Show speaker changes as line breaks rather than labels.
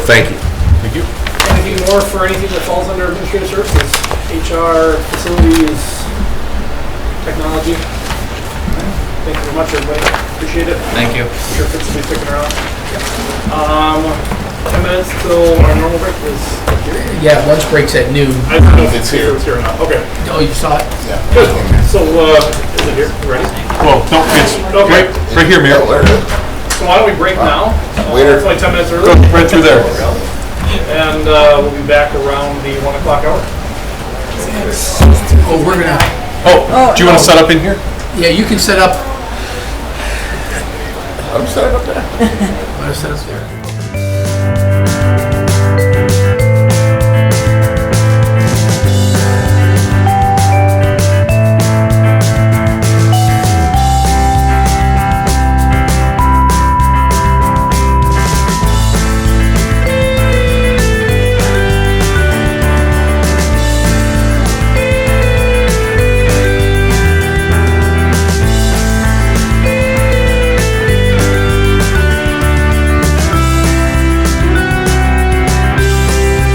Thank you.
Thank you.
Anything more for anything that falls under administrative services? HR, facilities, technology? Thank you very much, everybody. Appreciate it.
Thank you.
Sure Fitz will be sticking around. Um, ten minutes till our normal break is.
Yeah, lunch break's at noon.
I don't know if
It's
it's here
here.
or not. Okay,
Oh, you saw it?
good. So, uh, is it here? You Ready?
Well, no, it's
Okay,
right, right here, Mayor.
so why don't we break now? Uh,
Waiter.
It's only ten minutes early.
Go right through there.
And, uh, we'll be back around the one o'clock hour.
Oh, we're gonna,
Oh, do you want to set up in here?
yeah, you can set up,
I'm set up there.
wanna set up there.